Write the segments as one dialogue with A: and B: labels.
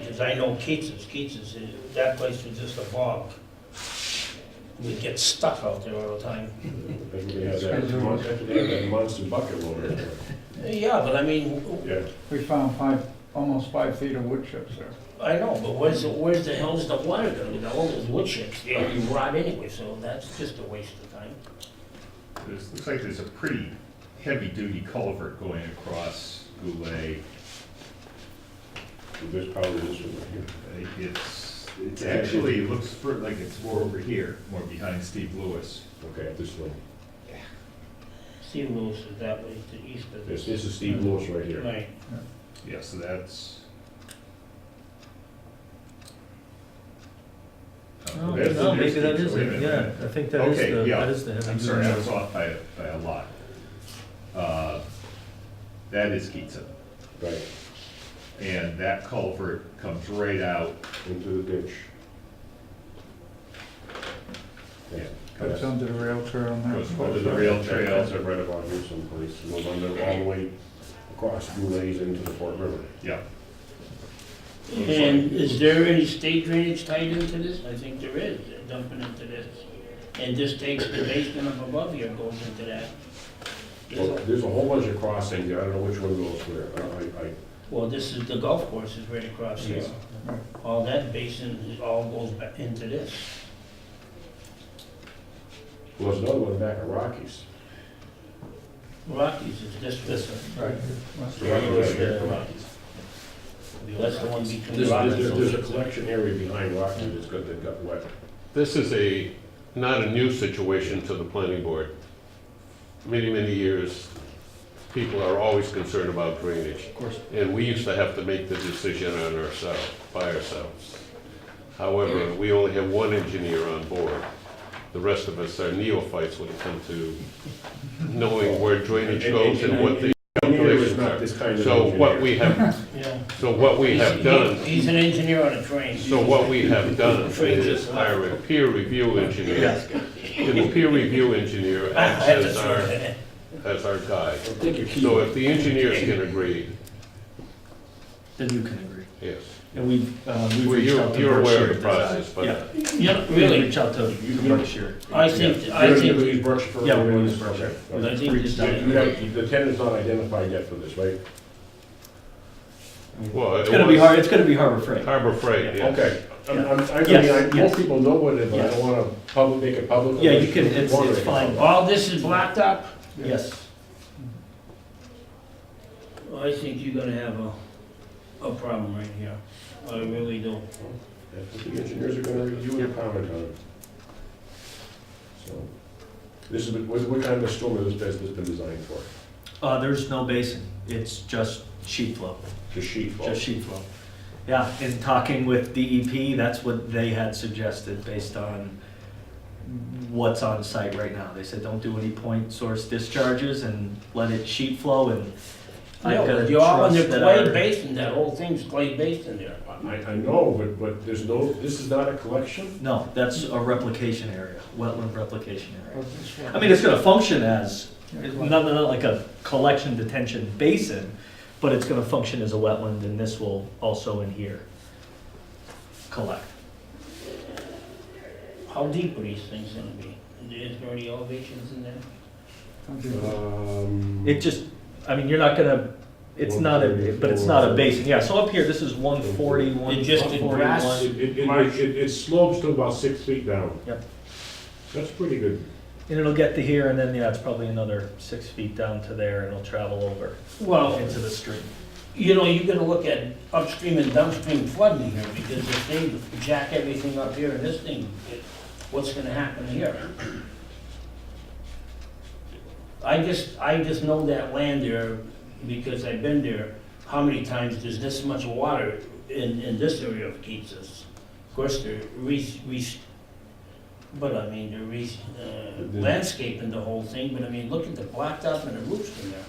A: Because I know Keats's, Keats's, uh, that place was just a bog. We'd get stuff out there all the time.
B: I think we have that mon- I think we have that monster bucket loader. there.
A: Yeah, but I mean, w-
B: Yeah,
C: We found five, almost five feet of wood chips there.
A: I know, but where's, the- where's the hell's the water gonna go? All those wood chips, they already rot anyway, so that's just a waste of time.
D: There's, looks like there's a pretty heavy-duty culvert going across Goulet.
B: So there's probably this one right here.
D: Uh, It's, it's actually, it looks for- like it's more over here, more behind Steve Lewis.
B: Okay, this one.
A: Steve Lewis is that way to the east of
B: This,
A: this.
B: this is Steve Lewis right here.
A: Right.
D: Yeah, so that's.
E: No,
D: Oh, That's the
E: Oh, no,
D: next
E: maybe that
D: picture.
E: is
D: Wait a
E: it, yeah,
D: minute.
E: I think that is
D: Okay,
E: the,
D: yeah.
E: that is the heavy.
D: I'm sorry,
E: duty.
D: I was off by, by a lot. Uh, That is Keatsa,
B: Right,
D: and that culvert comes right out,
B: into the ditch. Yeah.
C: That's
B: That's-
C: under the rail trail and
D: Goes
C: that.
B: Under
D: Those
B: the
D: are
B: rail
D: real
B: trails
D: trails.
B: are right about here someplace, and then under all the way across Goulet's into the Fort River.
D: yeah.
A: And is there any state drainage tied into this? I think there is, they're dumping into this. And this takes the basement up above here, goes into that.
B: Well, There's a whole bunch of crossings, I don't know which one goes where, I, I,
A: Well, this is, the golf course is right across here.
B: Yes.
A: All that basin, it all goes back into this.
B: well, there's another one back at Rockies.
A: Rockies is this, this one.
C: Right, must be.
B: Right.
A: That's the one between
B: There's, there's,
A: Rockies.
B: there's a collection area behind Rockies that's got, that got wet.
F: This is a, not a new situation to the planning board. Many, many years, people are always concerned about drainage.
C: Of course,
F: And we used to have to make the decision on ourselves, by ourselves. However, we only have one engineer on board. The rest of us are neophytes when it comes to knowing where drainage goes and what the
B: Engineer is
F: calculations
B: not
F: are.
B: this kind of
F: So what
B: engineer.
F: we have,
A: Yeah.
F: so what we have done
A: He's he's an engineer on a train.
F: So what we have done is hire a peer review engineer, and the peer review engineer
A: I
F: acts
A: have to
F: as
A: throw
F: our,
A: that in.
F: as our guide.
B: I think your key-
F: So if the engineers can agree,
E: Then you can agree.
F: yes.
E: And we've, uh, we've
F: Well,
E: reached out
F: you're,
E: to
F: you're aware
E: Berkshire.
F: of the process,
E: Yeah,
F: but
A: Yeah,
E: we've
A: really,
E: reached out to Berkshire.
A: I think, I
B: You're gonna
A: think,
B: use brush for.
E: Yeah, we're gonna use brush.
B: Okay.
A: I think this
B: You
A: is.
B: you have, the tenant's not identified yet for this, right?
F: Well,
E: It's
F: it
E: gonna be
F: was-
E: hard, it's gonna be harbor freight.
F: Harbor Freight, yes.
B: Okay, I'm, I'm, I mean,
E: Yes,
B: I,
E: yes.
B: most people know what it is, but I
E: Yes.
B: don't wanna public, make it public.
E: Yeah,
B: unless
E: you can, it's,
B: wanna
E: it's
B: make it
E: fine,
B: public.
A: All this is blocked up?
E: yes.
A: I think you're gonna have a, a problem right here. I really do.
B: That's what The engineers are gonna review and comment on it. So, this is, what, what kind of a storm has this been designed for?
E: Uh, there's no basin, it's just sheet flow,
B: The sheet fall?
E: just sheet flow. Yeah, in talking with DEP, that's what they had suggested based on what's on site right now. They said, don't do any point source discharges and let it sheet flow and
A: No,
E: I've gotta
A: you're all in the
E: trust that
A: clay
E: our-
A: basin, that whole thing's clay basin there.
B: I, I know, but, but there's no, this is not a collection?
E: No, that's a replication area, wetland replication area. I mean, it's gonna function as, not, not like a collection detention basin, but it's gonna function as a wetland, and this will also in here collect.
A: How deep are these things gonna be? Is there any elevations in there?
B: Um,
E: It just, I mean, you're not gonna, it's not a, but it's not a basin, yeah, so up here, this is one forty, one
A: It just did grass.
E: forty-one.
B: It, it, it- it, it slopes to about six feet down.
E: Yep.
B: That's pretty good.
E: And it'll get to here, and then, yeah, it's probably another six feet down to there, and it'll travel over
A: Well,
E: into the stream.
A: you know, you're gonna look at upstream and downstream flooding here, because if they jack everything up here and this thing, it- what's gonna happen here? I just, I just know that land there, because I've been there, how many times there's this much water in, in this area of Keatsa's? Of course, they're re, re, but I mean, they're re, uh, landscaping the whole thing, but I mean, look at the blacktop and the roofs in there.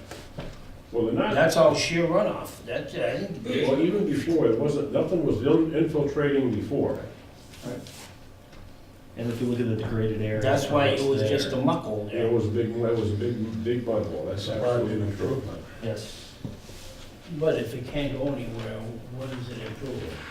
B: Well, they're not,
A: That's all sheer runoff, uh, that's, I think,
B: well, even before, it wasn't, nothing was in- infiltrating before.
E: And if you look at the degraded area.
A: that's why it
E: it's
A: was
E: there.
A: just a muckle
B: It
A: there.
B: was a big, it was a big, big mud wall, that's probably an improvement.
E: Yes.
A: But if it can't go anywhere, what is it improving?